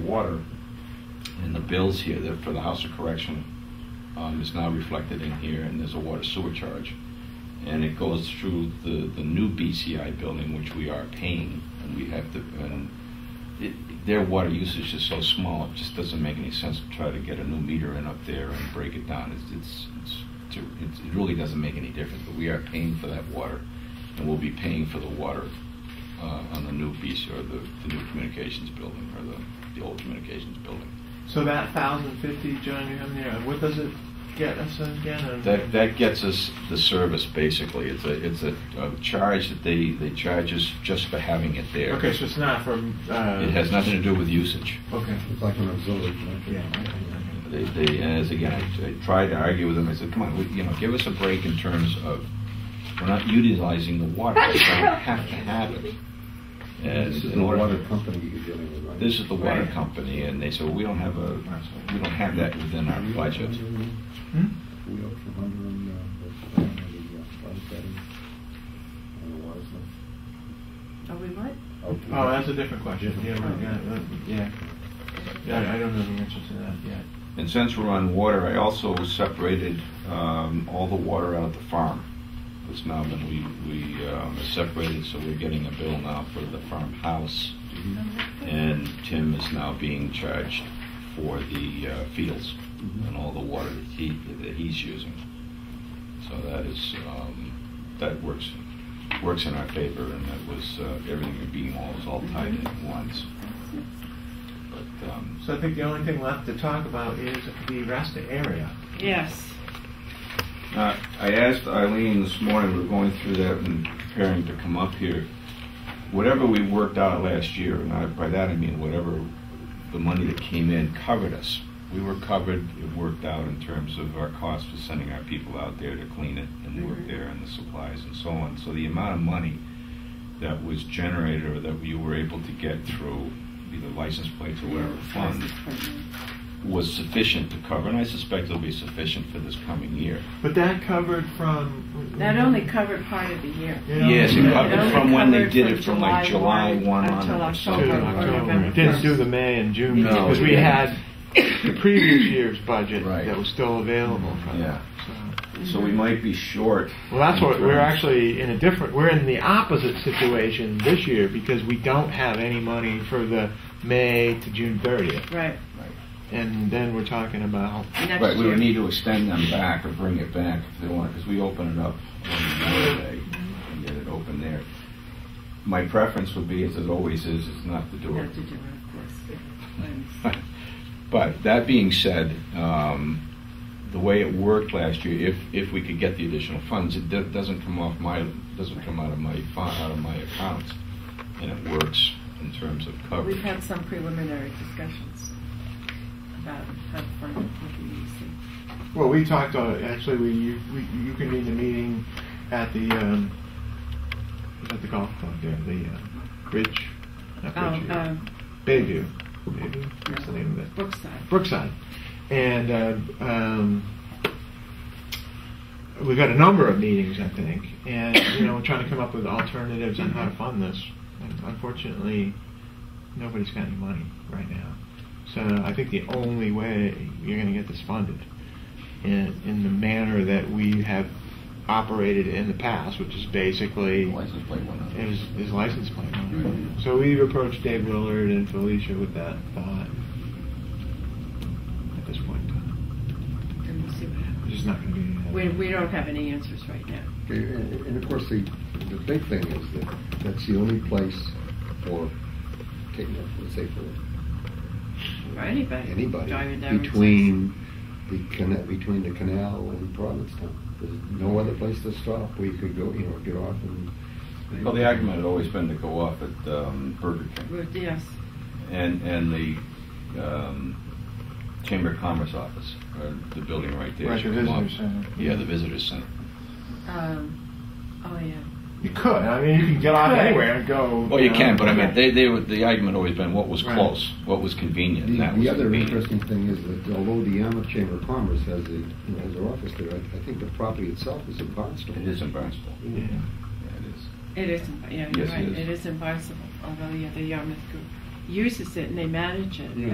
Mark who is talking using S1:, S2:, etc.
S1: water. And the bills here, that for the House of Correction, um, is now reflected in here, and there's a water sewer charge. And it goes through the, the new BCI building, which we are paying, and we have to, and it, their water usage is so small, it just doesn't make any sense to try to get a new meter in up there and break it down. It's, it's, it's, to- it's- it really doesn't make any difference, but we are paying for that water, and we'll be paying for the water uh, on the new BC, or the, the new communications building, or the, the old communications building.
S2: So that thousand fifty, John, you have there, what does it get us again? And-
S1: That, that gets us the service, basically. It's a, it's a, a charge that they, they charge us just for having it there.
S2: Okay, so it's not from, uh.
S1: It has nothing to do with usage.
S2: Okay.
S3: It's like an auxiliary connection.
S1: They, they, and as again, I, I tried to argue with them, I said, come on, we- you know, give us a break in terms of, we're not utilizing the water, we don't have to have it. And
S3: This is
S1: in
S3: the
S1: order-
S3: water company you're dealing with, right?
S1: This is the water
S2: Right.
S1: company, and they said, "Well, we don't have a, we don't have that within our budget.
S2: Hmm?
S3: We owe from under and, uh, the, uh, the, uh, water betting and the water stuff.
S4: Are we what?
S2: Oh, that's a different question. Yeah, right, yeah, that- yeah. Yeah, I- I don't know the answer to that yet.
S1: And since we're on water, I also separated um, all the water out of the farm. It's now been, we, we um, separated, so we're getting a bill now for the farmhouse. And Tim is now being charged for the uh, fields and all the water that he, that he's using. So that is, um, that works, works in our favor, and that was, uh, everything being all, was all tied in at once. But, um,
S2: So I think the only thing left to talk about is the Rasta area.
S4: Yes.
S1: Uh, I asked Eileen this morning, we we're going through that and preparing to come up here. Whatever we worked out last year, and I- by that I mean whatever the money that came in covered us. We were covered, it worked out in terms of our cost for sending our people out there to clean it and work
S4: Mhm.
S1: there and the supplies and so on. So the amount of money that was generated or that you were able to get through either license plates or whatever fund
S4: Mm-hmm.
S1: was sufficient to cover, and I suspect it'll be sufficient for this coming year.
S2: But that covered from.
S4: That only covered part of the year.
S2: You know,
S1: Yes, it
S2: yeah.
S1: covered
S4: only
S1: from when they
S4: covered
S1: did
S4: from
S1: it, from like July
S4: July
S1: 1
S4: one until
S1: on.
S2: To
S4: October.
S1: So-
S4: Or
S2: October.
S4: November
S2: It Didn't
S4: first.
S2: do the May and June,
S1: No,
S2: because we
S1: yeah.
S2: had the previous year's budget
S1: Right.
S2: that was still available for
S1: Yeah.
S2: that. so.
S1: So we might be short.
S2: Well, that's what, we're
S1: Right.
S2: actually in a different, we're in the opposite situation this year because we don't have any money for the May to June 30th.
S4: Right.
S2: And then we're talking about,
S4: Next
S1: Right, we
S4: year.
S1: would need to extend them back or bring it back if they want, because we open it up on Memorial Day and get it open there. My preference would be, as it always is, is not to do it.
S4: Not to do it, of course. yeah. I understand.
S1: But that being said, um, the way it worked last year, if, if we could get the additional funds, it do- doesn't come off my, doesn't come out of my, fi- out of my accounts. And it works in terms of coverage.
S4: We've had some preliminary discussions about how the fund would be used.
S2: well, we talked, uh, actually, we, you we- you convened a meeting at the, um, was at the golf club there, the uh, Bridge, not
S4: Oh,
S2: Bridgeview,
S4: um,
S2: Bayview, Bayview, what's the name of it?
S4: Brookside.
S2: Brookside. And uh, um, we've had a number of meetings, I think, and you know, we're trying to come up with alternatives on how to fund this. And unfortunately, nobody's got any money right now. So I think the only way you're going to get this funded in, in the manner that we have operated in the past, which is basically
S1: License plate went on.
S2: is, is license plate.
S1: Right.
S2: So we've approached Dave Willard and Felicia with that thought at this point in time.
S4: And we'll see what
S2: There's
S4: happens.
S2: just not going to be uh, any.
S4: We, we don't have any answers right now.
S3: Okay, And, and of course, the, the big thing is that that's the only place for, taking up, let's say for
S4: For anybody.
S3: anybody,
S4: Driving down Route six.
S3: between the cana, between the canal and Provincetown. There's no other place to stop where you could go, you know, get off and.
S1: Well, the argument had always been to go off at um, Burger King
S4: Route- Yes.
S1: and, and the um, Chamber of Commerce office, or the building right there.
S2: Right,
S1: should
S2: the
S1: come up.
S2: visitor center.
S1: Yeah, the visitor center.
S4: Um, oh, yeah.
S2: You could. I mean, you can get off
S4: Could.
S2: anywhere and go.
S1: Well, you
S2: know,
S1: can, but I mean, they, they, were- the argument always been what was
S2: Right.
S1: close, what was convenient,
S3: The,
S1: and that was
S3: the other
S1: convenient.
S3: interesting thing is that although the Yarmouth Chamber of Commerce has a, you know, has their office there, I, I think the property itself is in Barnstable.
S1: It is in Barnstable.
S2: Yeah.
S1: Yeah, it is.
S4: It is, in- yeah,
S1: Yes,
S4: you're
S1: it
S4: right.
S1: is.
S4: It is in Barnstable, although yeah, the Yarmouth Group uses it and they manage it.
S3: Yeah.